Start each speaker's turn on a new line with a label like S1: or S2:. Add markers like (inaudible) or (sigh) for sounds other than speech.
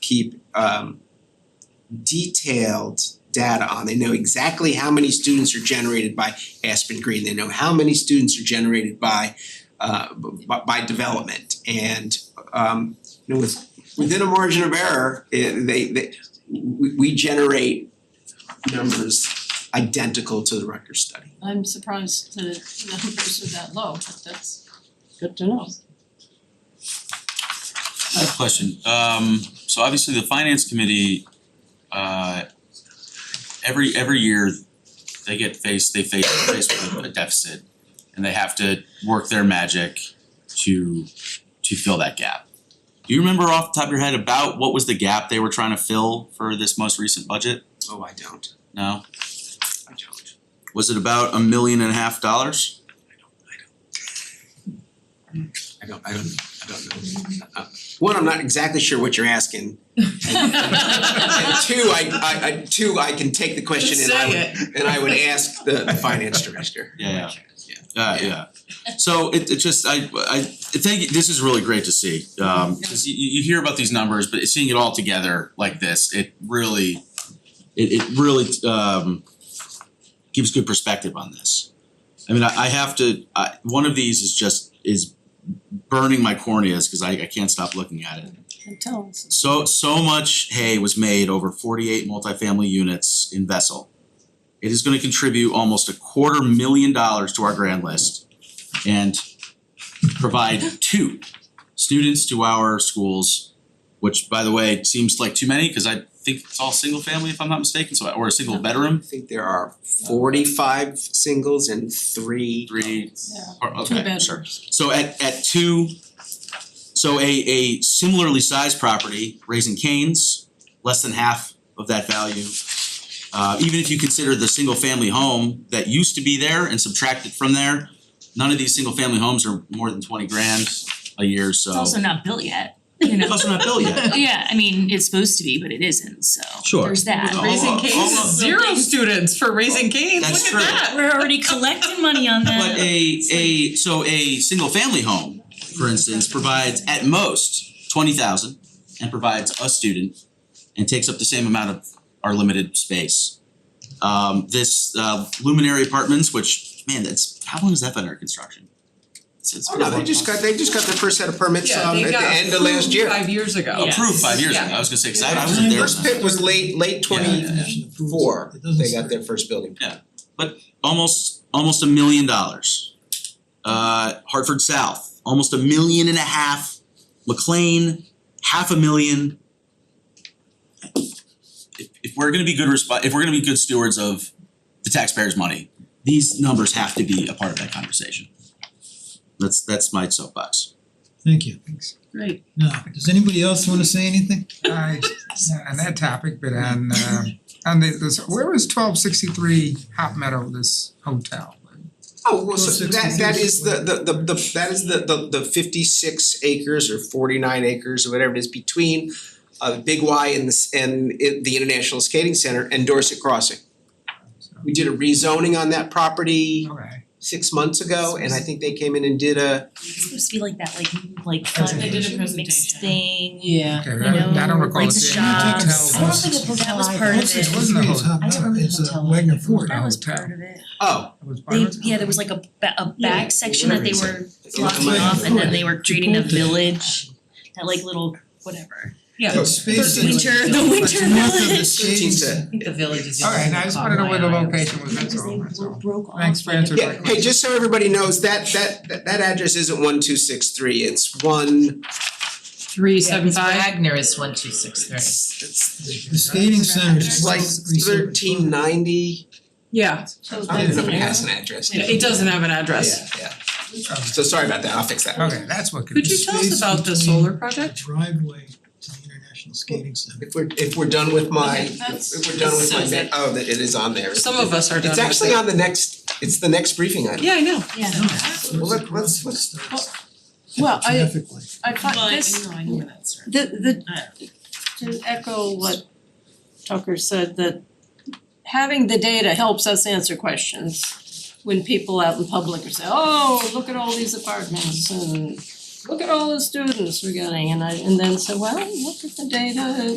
S1: keep um detailed data on. They know exactly how many students are generated by Aspen Green. They know how many students are generated by uh b- by by development and um you know with within a margin of error, eh, they they we we generate numbers identical to the Rutgers study.
S2: I'm surprised the numbers are that low, but that's
S3: Good to know.
S4: I have a question, um so obviously the finance committee uh every every year they get faced, they face faced with a deficit and they have to work their magic to to fill that gap. Do you remember off the top of your head about what was the gap they were trying to fill for this most recent budget?
S1: Oh, I don't,
S4: No?
S1: I don't.
S4: Was it about a million and a half dollars?
S1: I don't, I don't, I don't know. Uh, One, I'm not exactly sure what you're asking. And two, I I I two, I can take the question and I would and I would ask the the finance director.
S4: Yeah, Uh yeah. So it it just I I thank you, this is really great to see. Um
S2: Yeah.
S4: 'cause you you you hear about these numbers, but seeing it all together like this, it really it it really um gives good perspective on this. I mean, I I have to, I one of these is just is burning my corneas because I I can't stop looking at it.
S2: can tell us.
S4: So so much hay was made over forty-eight multifamily units in Vessel. It is gonna contribute almost a quarter million dollars to our grand list and provide two students to our schools, which by the way, seems like too many, cause I think it's all single family if I'm not mistaken, so or a single
S1: I
S4: bedroom,
S1: think there are forty five singles and three
S4: three,
S2: Yeah,
S4: or
S2: two
S4: okay, sure.
S2: bedrooms.
S4: So at at two, so a a similarly sized property, Raising Canes, less than half of that value. Uh even if you consider the single family home that used to be there and subtract it from there, none of these single family homes are more than twenty grand a year, so.
S5: It's also not built yet, you know?
S4: It's also not built
S5: (laughs)
S4: yet.
S5: Yeah, I mean, it's supposed to be, but it isn't, so
S4: Sure.
S5: there's that.
S4: No,
S3: Raising
S4: all- all
S3: Cane's,
S4: of-
S3: zero students for Raising Cane's,
S4: That's
S3: look
S4: true.
S3: at that.
S5: We're already collecting money
S4: (laughs)
S5: on
S4: But
S5: that.
S4: a a so a single family home, for instance, provides at most twenty thousand and provides a student and takes up the same amount of our limited space. Um this uh luminary apartments, which man, that's how long has that been under construction? It's it's
S1: Oh, no, they just got, they just got their first set of permits
S3: Yeah,
S1: um
S3: they
S1: at the
S3: got
S1: end of last year.
S3: approved five years ago.
S5: Yeah.
S4: approved five years ago,
S3: Yeah.
S4: I was gonna say, cause I I wasn't there when
S1: First
S4: that-
S1: pit was late, late
S4: Yeah,
S1: twenty
S4: yeah, yeah.
S1: four, they got their first building.
S4: almost almost a million dollars. Uh, Hartford South, almost a million and a half. McLean, half a million. If, if we're gonna be good resp- if we're gonna be good stewards of the taxpayers' money, these numbers have to be a part of that conversation. That's that's my soapbox.
S6: Thank you.
S2: Great.
S6: Now, does anybody else wanna say anything?
S7: I, not on that topic, but on um on the this, where was twelve sixty three Hop Meadow, this hotel?
S1: Oh, well, so
S6: Those
S1: that that is the
S6: 66.
S1: the the the that is the the the fifty six acres or forty nine acres or whatever it is between uh Big Y and the s- and it the International Skating Center and Dorset Crossing.
S7: So,
S1: We did a rezoning on that property
S7: Okay,
S1: six months ago and I think they came in and did a
S5: It's supposed to be like that, like like
S7: Presentation. They
S2: a
S7: did
S5: fun mixed
S2: presentation.
S5: thing, you
S3: Yeah.
S7: okay,
S5: know,
S7: I I don't recall it
S5: like
S7: being a
S5: shops.
S7: hotel.
S5: I don't think it was- that was part of it.
S6: It
S7: It wasn't a hotel.
S5: I don't remember the
S6: It's a
S5: hotel.
S6: Wagner Ford.
S5: That was
S7: hotel.
S5: part of it.
S1: oh,
S7: It was part
S5: They,
S7: of it?
S5: yeah, there was like a ba- a back section that they were
S1: Am
S5: blocking
S1: I-
S5: off and then they were creating a
S6: Chipotle.
S5: village, that like little whatever.
S3: Yeah.
S6: The space
S5: The
S6: is-
S5: winter- the winter
S6: It's north of the
S5: village.
S1: thirteen
S6: skating
S1: cent.
S3: The village is.
S7: Alright, and I just wanted to know where the location was, that's
S5: Because
S7: all, that's
S5: they were
S7: all.
S5: broke off.
S7: Thanks for
S5: like a-
S7: answering.
S1: Yeah, hey, just so everybody knows, that that that that address isn't one two six three, it's one,
S2: Three seven five.
S3: Wagner is one two six three.
S1: it's
S6: The skating center
S1: it's
S6: is
S1: like thirteen ninety.
S3: Yeah,
S2: So
S1: I don't
S2: that's
S1: even know if
S2: an
S1: it has
S2: error.
S1: an address.
S3: yeah, it doesn't have an address.
S1: Yeah, yeah.
S7: Oh,
S1: So sorry about that, I'll fix that.
S7: Okay, that's what could
S3: Could
S7: be.
S3: you tell us about the solar project?
S6: Driveway to the International Skating Center.
S1: If we're if we're done with my,
S2: Okay,
S1: if
S2: that's-
S1: we're done with my,
S3: says
S1: ma- oh, that it is on there.
S3: Some of us are done
S1: It's
S3: with
S1: actually
S3: it.
S1: on the next, it's the next briefing item.
S3: Yeah, I know.
S5: Yeah.
S1: Well, let- let's- let's-
S2: Well, I-
S6: Traffic light.
S2: I thought this,
S3: I know where that's from.
S2: the the, to echo what Tucker said, that having the data helps us answer questions when people out in public are saying, oh, look at all these apartments and look at all the students we're getting, and I, and then say, well, look at the data,